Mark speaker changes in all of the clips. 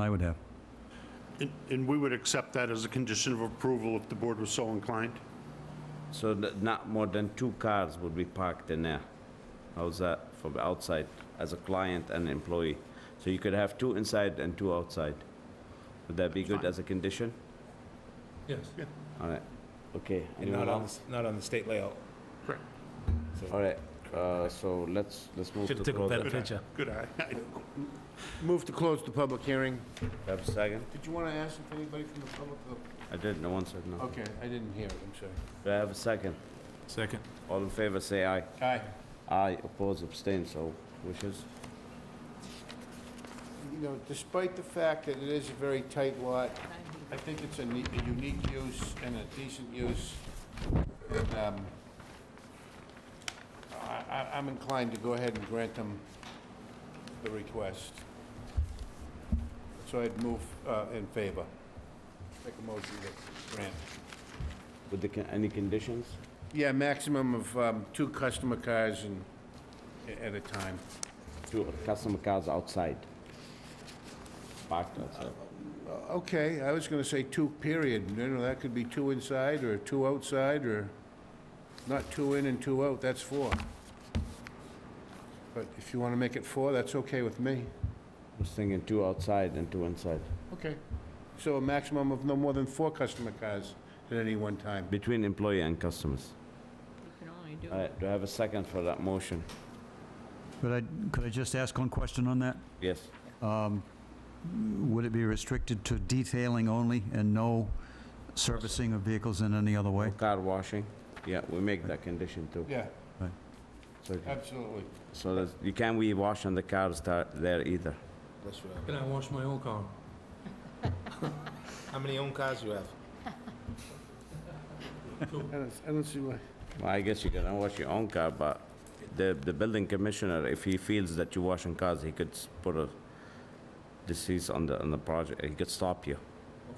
Speaker 1: I would have.
Speaker 2: And- And we would accept that as a condition of approval if the board was so inclined?
Speaker 3: So that not more than two cars would be parked in there. How's that from outside as a client and employee? So you could have two inside and two outside. Would that be good as a condition?
Speaker 4: Yes.
Speaker 3: All right, okay.
Speaker 5: And
Speaker 3: Anyone
Speaker 5: not on, the
Speaker 3: else?
Speaker 5: s- not on the state layout.
Speaker 2: Correct.
Speaker 3: All right, uh, so let's, let's move to.
Speaker 4: Should've took a
Speaker 3: close
Speaker 4: better
Speaker 3: the-
Speaker 4: picture.
Speaker 2: Good eye.
Speaker 6: Move to close the public hearing.
Speaker 3: Have a second?
Speaker 6: Did you want to ask if anybody from the public? oh,
Speaker 3: I did, no one said no.
Speaker 6: Okay, I didn't hear it, I'm sorry.
Speaker 3: Do I have a second?
Speaker 4: Second.
Speaker 3: All in favor, say aye.
Speaker 6: Aye.
Speaker 3: Aye, oppose, abstain, so wishes.
Speaker 6: You know, despite the fact that it is a very tight lot, I think it's a ne- a unique use and a decent use. And, um, I- I- I'm inclined to go ahead and grant them the request. So I'd move uh, in favor. Make a motion to grant.
Speaker 3: With the, con- any conditions?
Speaker 6: Yeah, maximum of um, two customer cars and, at a time.
Speaker 3: Two customer cars outside. Parked outside.
Speaker 6: Okay, I was gonna say two, period, you know, that could be two inside, or two outside, or not two in and two out, that's four. But if you wanna make it four, that's okay with me.
Speaker 3: Was thinking two outside and two inside.
Speaker 6: Okay. So a maximum of no more than four customer cars at any one time.
Speaker 3: Between employee and customers.
Speaker 7: You can only do
Speaker 3: All right, do I have a second for that motion?
Speaker 1: Could I, could I just ask one question on that?
Speaker 3: Yes.
Speaker 1: Would it be restricted to detailing only and no servicing of vehicles in any other way?
Speaker 3: Car washing? Yeah, we make that condition too.
Speaker 6: Yeah,
Speaker 3: So,
Speaker 6: absolutely.
Speaker 3: so that's- you can't be washing the cars tha- there either.
Speaker 5: That's what
Speaker 4: Can I wash my own car?
Speaker 5: I, how many own cars you have?
Speaker 6: I don't, I don't see why.
Speaker 3: Well, I guess you can wash your own car, but the, the building commissioner, if he feels that you're washing cars, he could s- put a disease on the, on the project, he could stop you,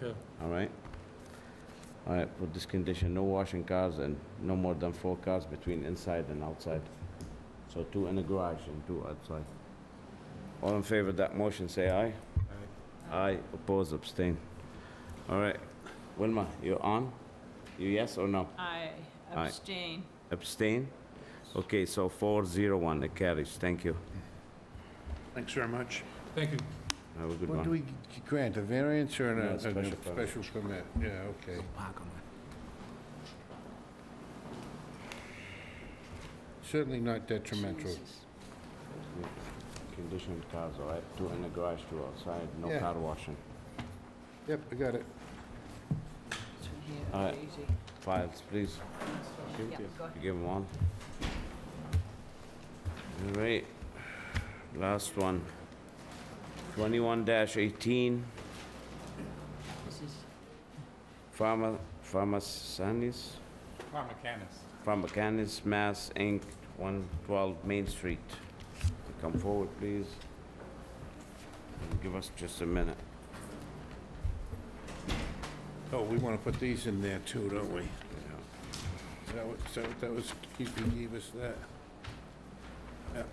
Speaker 4: Okay.
Speaker 3: all right? All right, put this condition, no washing cars and no more than four cars between inside and outside. So two in the garage and two outside. All in favor of that motion, say aye. Aye, oppose, abstain. All right, Wilma, you on? You yes or no?
Speaker 7: I
Speaker 3: Aye.
Speaker 7: abstain.
Speaker 3: Abstain? Okay, so 401, it carries, thank you.
Speaker 2: Thanks very much.
Speaker 4: Thank you.
Speaker 3: Have a good
Speaker 6: What do
Speaker 3: one.
Speaker 6: we g- grant, a variance or
Speaker 3: No,
Speaker 6: a, a
Speaker 3: special
Speaker 6: special
Speaker 3: permit.
Speaker 6: permit? Yeah, okay. Certainly not detrimental.
Speaker 3: Conditioned cars, all right, two in the garage, two outside, no
Speaker 6: Yeah.
Speaker 3: car washing.
Speaker 6: Yep, I got it.
Speaker 7: This one here
Speaker 3: All
Speaker 7: is
Speaker 3: right.
Speaker 7: easy.
Speaker 3: Files, please,
Speaker 7: Yeah, go ahead.
Speaker 3: you give them one. All right, last one. 21-18,
Speaker 7: This is
Speaker 3: Pharma, Pharmacanis? Pharmacanis, Mass, Inc., 112 Main Street. Come forward, please. Give us just a minute.
Speaker 6: Oh, we want to put these in there too, don't we? That was, so that was, he gave us that. Yep.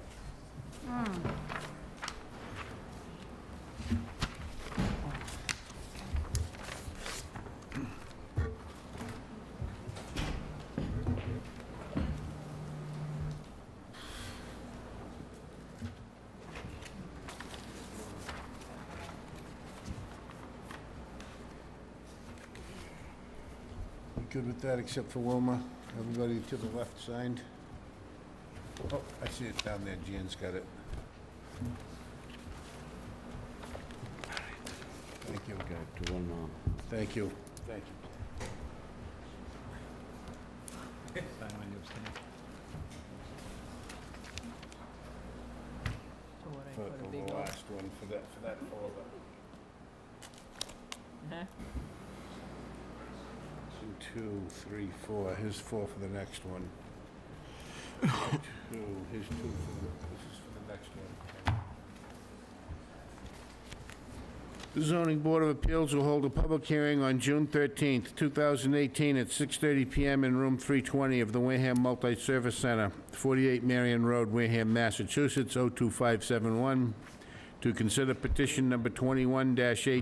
Speaker 6: You Good with that, except for Wilma. Everybody to the left signed. Oh, I see it down there. Jan's got it. Thank you.
Speaker 3: Go to one more.
Speaker 6: Thank you. Thank you.
Speaker 7: so what I
Speaker 6: For
Speaker 7: put a
Speaker 6: for
Speaker 7: big
Speaker 6: the
Speaker 7: old,
Speaker 6: last one, for that, for that folder.
Speaker 7: huh?
Speaker 6: Two, two, three, four, here's four for the next one. Two, here's two for the, this is for the next one. The zoning board of appeals will hold a public hearing on June 13th, 2018, at 6:30 PM in room 320 of the Wareham oh Multi-Service Center, 48 Marion Road, Wareham, Massachusetts, 02571, to consider petition number 21-18